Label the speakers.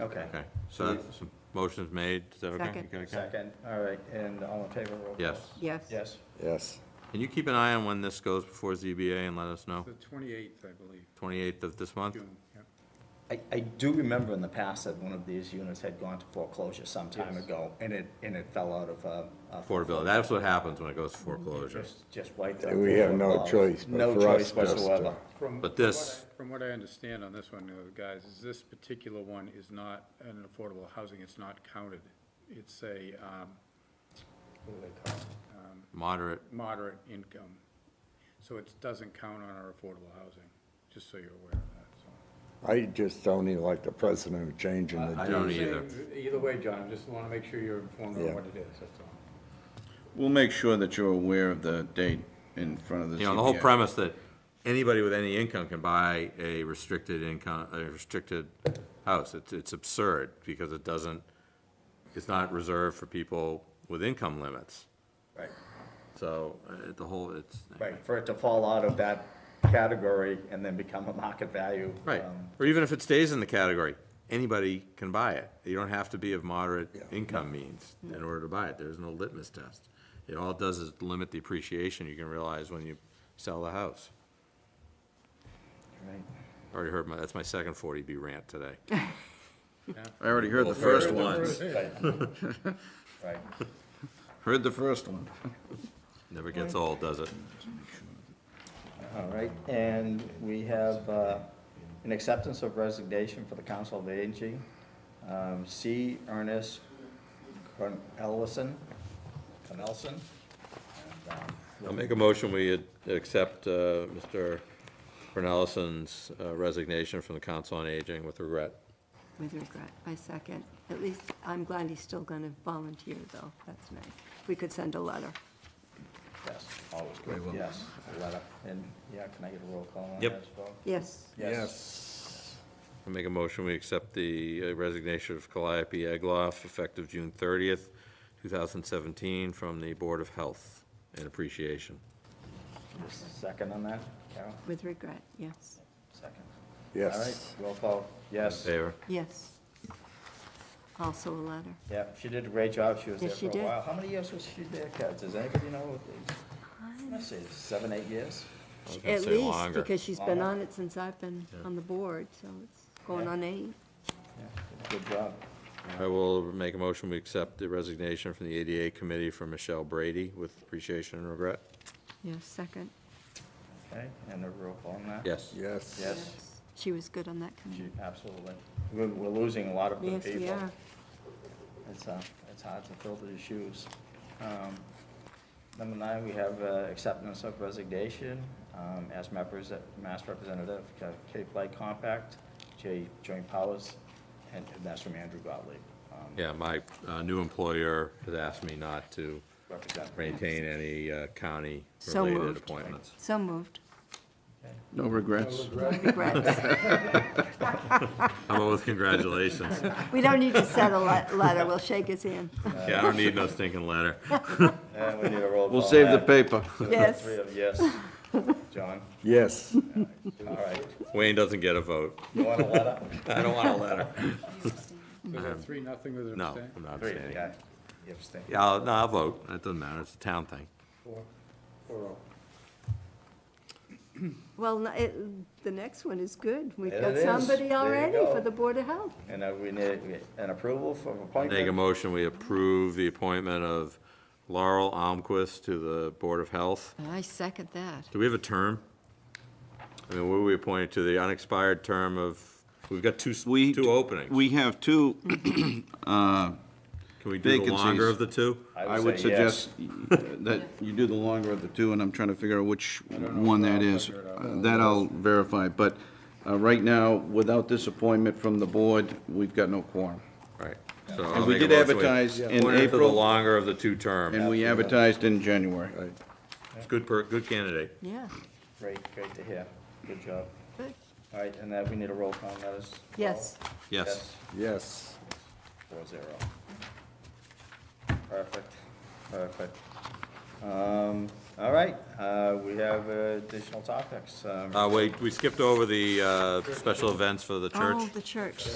Speaker 1: Okay.
Speaker 2: Okay, so that's, so motion's made, is that okay?
Speaker 3: Second.
Speaker 2: You got it, Ken?
Speaker 1: Second, all right, and all in favor, roll call.
Speaker 2: Yes.
Speaker 3: Yes.
Speaker 1: Yes,
Speaker 4: Yes.
Speaker 2: Can you keep an eye on when this goes before ZBA and let us know?
Speaker 5: The twenty-eighth, I believe,
Speaker 2: Twenty-eighth of this month?
Speaker 5: June, yeah.
Speaker 1: I, I do remember in the past that one of these units had gone to foreclosure some time ago, and it, and it fell out of, uh. uh,
Speaker 2: Affordability, that's what happens when it goes to foreclosure.
Speaker 1: Just, just wiped out.
Speaker 4: We have no
Speaker 1: foreclosure.
Speaker 4: choice, but
Speaker 1: No
Speaker 4: for us
Speaker 1: choice
Speaker 4: just to-
Speaker 1: whatsoever.
Speaker 5: From
Speaker 2: But
Speaker 5: what
Speaker 2: this-
Speaker 5: I- From what I understand on this one, uh, guys, is this particular one is not an affordable housing, it's not counted. It's a, um, what do they call it? Um,
Speaker 2: Moderate,
Speaker 5: Moderate income. So it doesn't count on our affordable housing, just so you're aware of that, so.
Speaker 4: I just don't even like the president of changing
Speaker 2: I
Speaker 4: the
Speaker 2: don't
Speaker 5: I'm
Speaker 2: either.
Speaker 5: saying uh, Either way, John, I just want to make sure you're informed
Speaker 4: Yeah.
Speaker 5: on what it is, that's all.
Speaker 6: We'll make sure that you're aware of the date in front of the
Speaker 2: you know, the whole
Speaker 6: ZBA.
Speaker 2: premise that anybody with any income can buy a restricted income, a restricted house, it's, it's absurd, because it doesn't, it's not reserved for people with income limits.
Speaker 1: Right,
Speaker 2: So, uh, the whole, it's.
Speaker 1: right, for it to fall out of that category and then become a market value.
Speaker 2: Right,
Speaker 1: um,
Speaker 2: or even if it stays in the category, anybody can buy it. You don't have to be of moderate income means in order to buy it. There's no litmus test. It all it does is limit the appreciation you can realize when you sell the house.
Speaker 1: right.
Speaker 2: Already heard my, that's my second forty B rant today.
Speaker 6: I already heard the first one.
Speaker 1: Right,
Speaker 6: Heard the first one.
Speaker 2: Never gets old, does it?
Speaker 1: all right, and we have uh, an acceptance of resignation for the Council of Aging. Um, C. Ernest Cornelison, Cornelson. And, um,
Speaker 2: I'll make a motion, we ad- accept, uh, Mr. Brunellison's uh, resignation from the Council on Aging with regret.
Speaker 3: With regret, I second. At least, I'm glad he's still going to volunteer, though. That's nice. We could send a letter.
Speaker 1: Yes, always good, yes, a letter, and, yeah, can I get a roll call on that
Speaker 2: Yep.
Speaker 1: as well?
Speaker 3: Yes,
Speaker 1: Yes.
Speaker 2: I make a motion, we accept the uh, resignation of Calliope Egloff effective June thirtieth, two thousand seventeen, from the Board of Health and Appreciation.
Speaker 1: Second on that, Carol,
Speaker 3: with regret, yes,
Speaker 1: second. All right,
Speaker 4: Yes.
Speaker 1: roll call, yes,
Speaker 2: Favor?
Speaker 3: yes. Also a letter.
Speaker 1: yeah, she did a great job, she was there
Speaker 3: Yes,
Speaker 1: for
Speaker 3: she
Speaker 1: a
Speaker 3: did.
Speaker 1: while. How many years was she there, Kat, does anybody know? Let's see, seven, eight years?
Speaker 2: I was gonna
Speaker 3: At
Speaker 2: say
Speaker 3: least,
Speaker 2: longer.
Speaker 3: because she's been
Speaker 1: Longer.
Speaker 3: on it since I've been on the board, so it's going
Speaker 1: Yeah.
Speaker 3: on eight.
Speaker 1: Yeah, Good job,
Speaker 2: I will make a motion, we accept the resignation from the ADA Committee for Michelle Brady with appreciation and regret.
Speaker 3: Yes, second.
Speaker 1: okay, and a roll call on that?
Speaker 2: Yes.
Speaker 4: Yes.
Speaker 1: Yes.
Speaker 3: She was good on that committee.
Speaker 1: She- Absolutely, we're, we're losing a lot of good
Speaker 3: Yes,
Speaker 1: people.
Speaker 3: we are.
Speaker 1: It's, uh, it's hard to fill these shoes. Um, Number nine, we have uh, acceptance of resignation um, as map represent- Mass Representative of Cape Light Compact, J. Joint Powers, and and that's from Andrew Gottlieb. um,
Speaker 2: Yeah, my uh, new employer has asked me not to
Speaker 1: Represent.
Speaker 2: maintain any uh,
Speaker 3: So
Speaker 2: county-related
Speaker 3: moved.
Speaker 2: appointments.
Speaker 3: So moved.
Speaker 6: No regrets.
Speaker 3: Regrets.
Speaker 2: How about with congratulations?
Speaker 3: We don't need to send a le- letter. We'll shake his hand.
Speaker 2: Yeah, I don't need no stinking letter.
Speaker 1: And we need a roll call.
Speaker 6: We'll save the
Speaker 1: on
Speaker 6: paper.
Speaker 1: that.
Speaker 3: Yes.
Speaker 1: Three of yes. John,
Speaker 4: Yes.
Speaker 1: all right.
Speaker 2: Wayne doesn't get a vote.
Speaker 1: You want a letter?
Speaker 2: I don't want a letter.
Speaker 5: Was it three, nothing with an
Speaker 2: No,
Speaker 5: abstain?
Speaker 2: I'm not
Speaker 1: Three,
Speaker 2: abstaining.
Speaker 1: yeah. You abstain.
Speaker 2: Yeah, I'll, no, I'll vote. That doesn't matter. It's a town thing.
Speaker 5: Four, four oh.
Speaker 3: Well, n- it, the next one is good. We've
Speaker 1: It
Speaker 3: got
Speaker 1: is. There
Speaker 3: somebody
Speaker 1: you
Speaker 3: already
Speaker 1: go.
Speaker 3: for the Board of Health.
Speaker 1: And uh, we need an approval for appointment.
Speaker 2: Make a motion, we approve the appointment of Laurel Almquist to the Board of Health.
Speaker 3: I second that.
Speaker 2: Do we have a term? I mean, were we appointed to the unexpired term of, we've got two, s-
Speaker 6: We-
Speaker 2: two openings.
Speaker 6: We have two,
Speaker 2: Can we do the longer
Speaker 6: vacancies.
Speaker 2: of the two?
Speaker 6: I would
Speaker 1: say yes.
Speaker 6: suggest that you do the longer of the two, and I'm trying to figure out which one that is. Uh, That I'll verify, but uh, right now, without this appointment from the board, we've got no quorum.
Speaker 2: Right. So I'll
Speaker 6: And we
Speaker 2: make a
Speaker 6: did
Speaker 2: motion,
Speaker 6: advertise in
Speaker 2: appoint her to the
Speaker 6: April.
Speaker 2: longer of the two term.
Speaker 6: And we advertised in January.
Speaker 2: It's Good, per- good candidate.
Speaker 3: Yeah,
Speaker 1: Great, great to hear. Good job.
Speaker 3: good.
Speaker 1: All right, and that, we need a roll call on that as well?
Speaker 3: Yes.
Speaker 2: Yes.
Speaker 4: Yes.
Speaker 1: Four zero. Perfect, perfect. Um, all right, uh, we have uh, additional topics. Um,
Speaker 2: Uh, wait, we skipped over the, uh, special events for the church.
Speaker 3: Oh, the church.